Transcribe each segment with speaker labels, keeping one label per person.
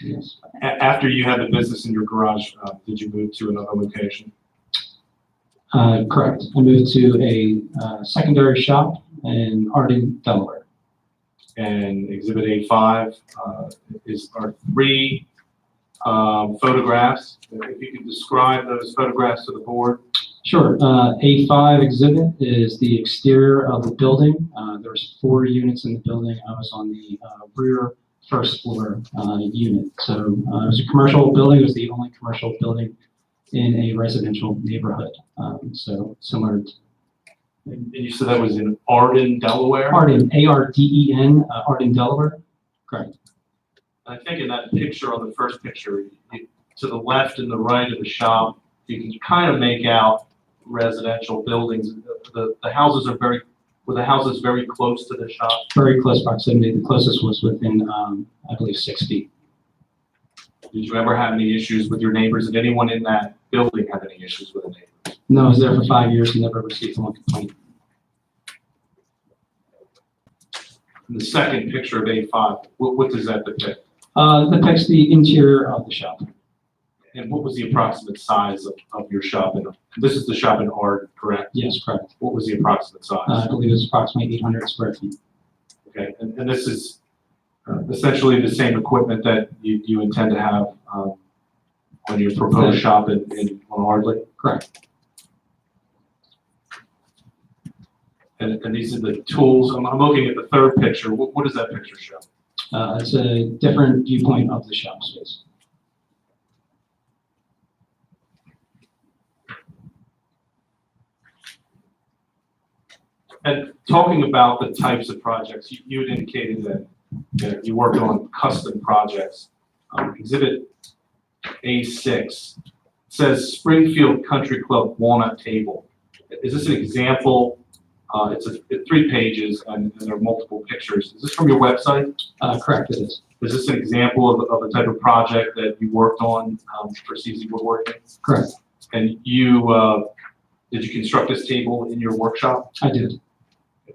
Speaker 1: Yes.
Speaker 2: A- after you had the business in your garage, uh, did you move to another location?
Speaker 1: Uh, correct. I moved to a, uh, secondary shop in Harding, Delaware.
Speaker 2: And Exhibit A5 uh, is, are three um, photographs. If you could describe those photographs to the board.
Speaker 1: Sure. Uh, A5 exhibit is the exterior of the building. Uh, there's four units in the building. I was on the, uh, rear first floor, uh, unit. So, uh, it was a commercial building. It was the only commercial building in a residential neighborhood. Um, so similar to
Speaker 2: And and you said that was in Arden, Delaware?
Speaker 1: Arden, A-R-D-E-N, uh, Arden, Delaware. Correct.
Speaker 2: I think in that picture, on the first picture, you- to the left and the right of the shop, you can kind of make out residential buildings. The- The, the houses are very, were the houses very close to the shop?
Speaker 1: Very close proximity. The closest was within, um, I believe, six feet.
Speaker 2: Did you ever have any issues with your neighbors? Did anyone in that building have any issues with a neighbor?
Speaker 1: No, I was there for five years and never received one complaint.
Speaker 2: And The second picture of A5, what, what does that depict?
Speaker 1: Uh, depicts the interior of the shop.
Speaker 2: And what was the approximate size of, of your shop? And This is the shop in Arden, correct?
Speaker 1: Yes, correct.
Speaker 2: What was the approximate size?
Speaker 1: Uh, I believe it's approximately eight hundred square feet.
Speaker 2: Okay, and, and this is uh, essentially the same equipment that you, you intend to have, um, on your proposed shop in, in, on Ardley?
Speaker 1: Correct.
Speaker 2: And, and these are the tools, I'm, I'm looking at the third picture, what, what does that picture show?
Speaker 1: Uh, it's a different viewpoint of the shop space.
Speaker 2: And talking about the types of projects, you, you had indicated that, that you worked on custom projects. Um, exhibit A six says Springfield Country Club Walnut Table. Is this an example? Uh, it's a, it's three pages and, and there are multiple pictures. Is this from your website?
Speaker 1: Uh, correct, it is.
Speaker 2: Is this an example of, of a type of project that you worked on, um, for CZ Woodworking?
Speaker 1: Correct.
Speaker 2: And you, uh, did you construct this table in your workshop?
Speaker 1: I did.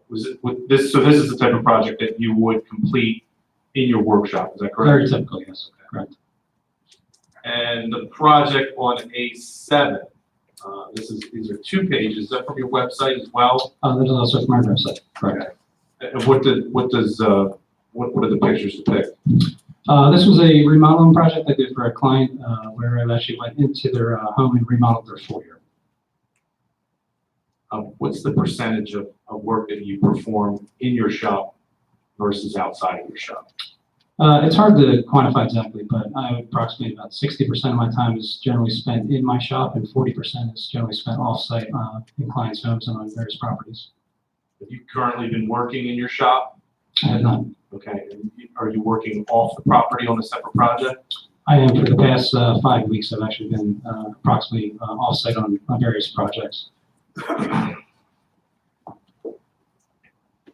Speaker 2: Was it, would this, so this is the type of project that you would complete in your workshop, is that
Speaker 1: Very
Speaker 2: correct?
Speaker 1: typical, yes. Correct.
Speaker 2: And the project on A seven, uh, this is, these are two pages, is that from your website as well?
Speaker 1: Uh, that is also from our website. Correct.
Speaker 2: And what did, what does, uh, what, what are the pictures depict?
Speaker 1: Uh, this was a remodeling project I did for a client, uh, where I actually went into their, uh, home and remodeled their foyer.
Speaker 2: Um, what's the percentage of, of work that you perform in your shop versus outside of your shop?
Speaker 1: Uh, it's hard to quantify exactly, but I would approximate about sixty percent of my time is generally spent in my shop and forty percent is generally spent off-site, uh, in clients' homes and on various properties.
Speaker 2: Have you currently been working in your shop?
Speaker 1: I have not
Speaker 2: Okay, and are you working off the property on a separate project?
Speaker 1: I am for the past uh, five weeks. I've actually been uh, approximately uh, off-site on on various projects.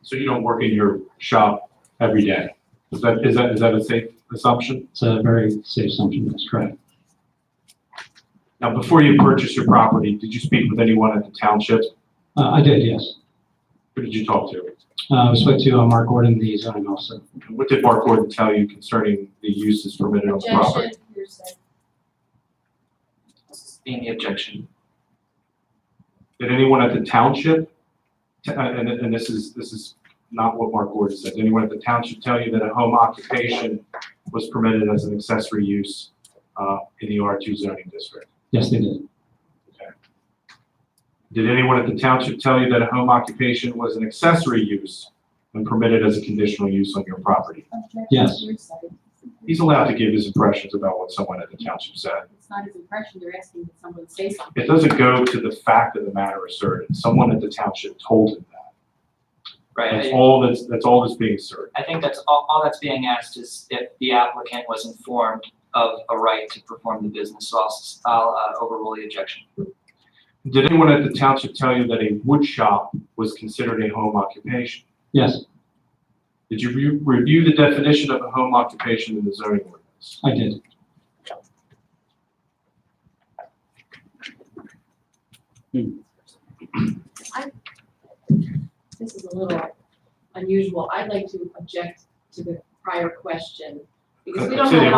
Speaker 2: So you don't work in your shop every day? Is that, is that, is that a safe assumption?
Speaker 1: It's a very safe assumption. That's correct.
Speaker 2: Now, before you purchased your property, did you speak with anyone at the township?
Speaker 1: Uh, I did, yes.
Speaker 2: Who did you talk to?
Speaker 1: Uh, I spoke to uh, Mark Gordon, the zoning officer.
Speaker 2: And What did Mark Gordon tell you concerning the uses permitted on the property?
Speaker 3: Objection, hearsay.
Speaker 4: Sustain the objection.
Speaker 2: Did anyone at the township, t- uh, and, and this is, this is not what Mark Gordon said, Did anyone at the township tell you that a home occupation was permitted as an accessory use uh, in the R2 zoning district?
Speaker 1: Yes, they did.
Speaker 2: Did anyone at the township tell you that a home occupation was an accessory use and permitted as a conditional use on your property?
Speaker 3: Objection,
Speaker 1: Yes.
Speaker 3: hearsay.
Speaker 2: He's allowed to give his impressions about what someone at the township said.
Speaker 3: It's not his impression, you're asking that someone say something.
Speaker 2: It doesn't go to the fact of the matter asserted. Someone at the township told him that. That's
Speaker 4: Right, I-
Speaker 2: all that's, that's all that's being asserted.
Speaker 4: I think that's, all, all that's being asked is if the applicant was informed of a right to perform the business, so I'll, s- I'll uh, overrule the objection.
Speaker 2: Did anyone at the township tell you that a wood shop was considered a home occupation?
Speaker 1: Yes,
Speaker 2: Did you re- review the definition of a home occupation in the zoning ordinance?
Speaker 1: I did.
Speaker 3: This is a little unusual. I'd like to object to the prior question because we don't
Speaker 2: Continue.
Speaker 3: have